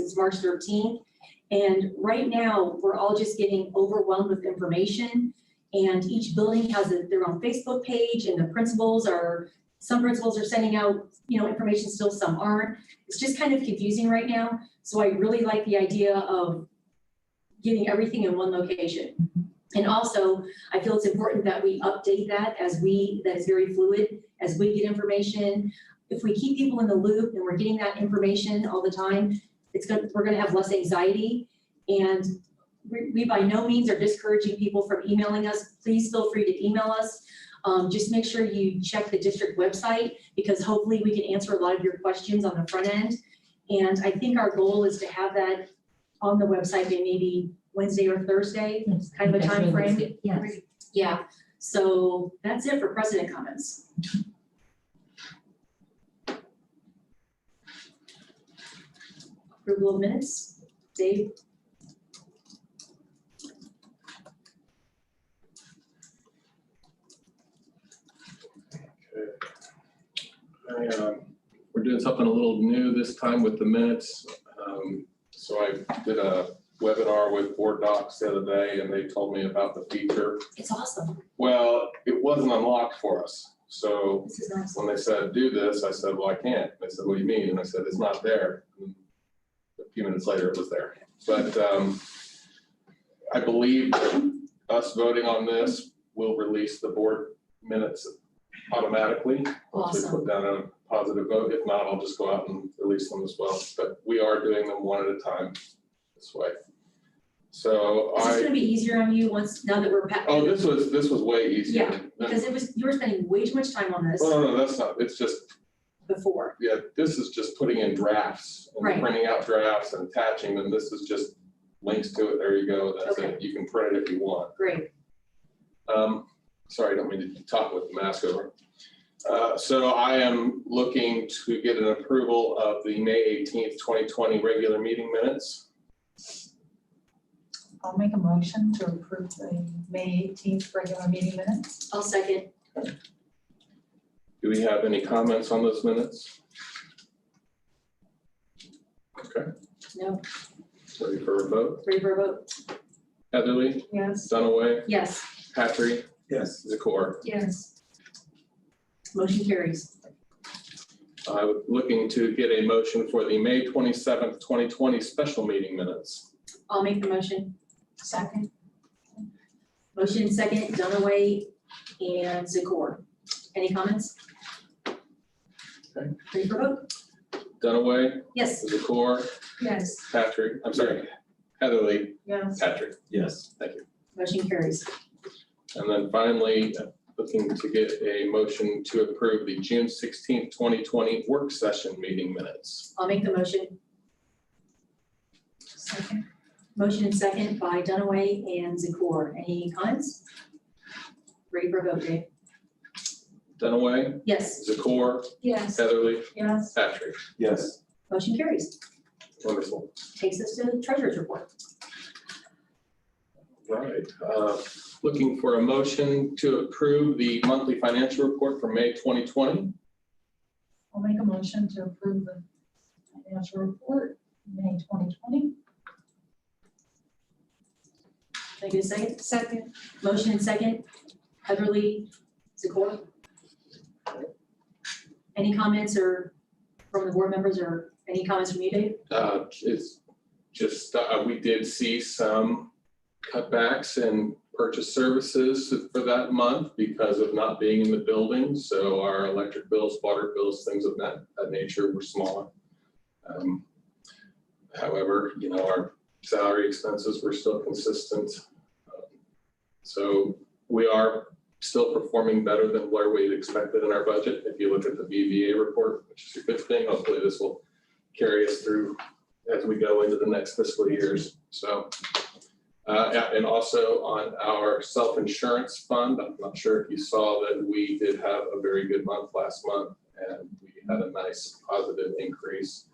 since March thirteenth. And right now, we're all just getting overwhelmed with information. And each building has a- their own Facebook page and the principals are, some principals are sending out, you know, information still, some aren't. It's just kind of confusing right now. So I really like the idea of getting everything in one location. And also, I feel it's important that we update that as we, that is very fluid, as we get information. If we keep people in the loop and we're getting that information all the time, it's gonna, we're gonna have less anxiety. And we, we by no means are discouraging people from emailing us. Please feel free to email us. Um, just make sure you check the district website because hopefully we can answer a lot of your questions on the front end. And I think our goal is to have that on the website by maybe Wednesday or Thursday. Yes, Kind of a that's really timeframe. good, Yes. Yeah, so that's it for president comments. Approval of minutes, Dave? I, um, We're doing something a little new this time with the minutes. Um, So I did a webinar with Board Docs the other day, and they told me about the feature. It's awesome. Well, it wasn't unlocked for us. So This is awesome. when they said, do this, I said, well, I can't. They said, what do you mean? And I said, it's not there. And A few minutes later, it was there. But um, I believe us voting on this will release the board minutes automatically. once we Awesome. Put down a positive vote. If not, I'll just go out and release them as well. But we are doing them one at a time this way. So Is this I, gonna be easier on you once, now that we're past? oh, this was, this was way easier. Yeah, Because it was, you were spending way too much time on this Oh, no, no, that's not, it's just before. yeah, this is just putting in drafts Right. and printing out drafts and attaching them. This is just links to it. There you go. That's Okay. it. You can print it if you want. Great, Um, sorry, I don't mean to talk with the mask over. Uh, so I am looking to get an approval of the May eighteenth, twenty twenty regular meeting minutes. I'll make a motion to approve the May eighteenth regular meeting minutes. I'll second. Do we have any comments on those minutes? Okay, No, ready for a vote? ready for a vote? Heatherly, Yes. Dunaway, Yes, Patrick, Yes. Zakor. Yes. motion carries. I was looking to get a motion for the May twenty-seventh, twenty twenty special meeting minutes. I'll make the motion. Second. Motion second, Dunaway and Zakor. Any comments? Okay. Ready for a vote? Dunaway, Yes, Zakor, Yes. Patrick, I'm sorry, Heatherly, Yes. Patrick, Yes. thank you. motion carries. And then finally, uh, looking to get a motion to approve the June sixteenth, twenty twenty work session meeting minutes. I'll make the motion. Second. Motion and second by Dunaway and Zakor. Any comments? Ready for a vote, Dave? Dunaway, Yes, Zakor, Yes. Heatherly, Yes. Patrick, Yes. motion carries. wonderful. Takes us to the treasurer's report. Right, uh, looking for a motion to approve the monthly financial report for May twenty twenty. I'll make a motion to approve the financial report, May twenty twenty. Can I get a second? Second. Motion and second, Heatherly, Zakor. Any comments or from the board members or any comments from you, Dave? Uh, It's just, uh, we did see some cutbacks in purchase services for that month because of not being in the building. So our electric bills, water bills, things of that, that nature were smaller. Um, However, you know, our salary expenses were still consistent. So we are still performing better than where we expected in our budget. If you look at the BVA report, which is a good thing, hopefully this will carry us through as we go into the next fiscal years. So, uh, yeah, and also on our self-insurance fund, I'm not sure if you saw that we did have a very good month last month and we had a nice positive increase.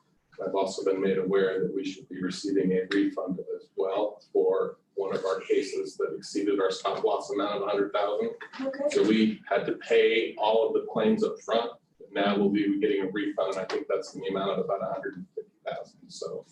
I've also been made aware that we should be receiving a refund as well for one of our cases that exceeded our stop loss amount of hundred thousand. Okay. So we had to pay all of the claims up front. Now we'll be getting a refund, and I think that's in the amount of about $150,000. So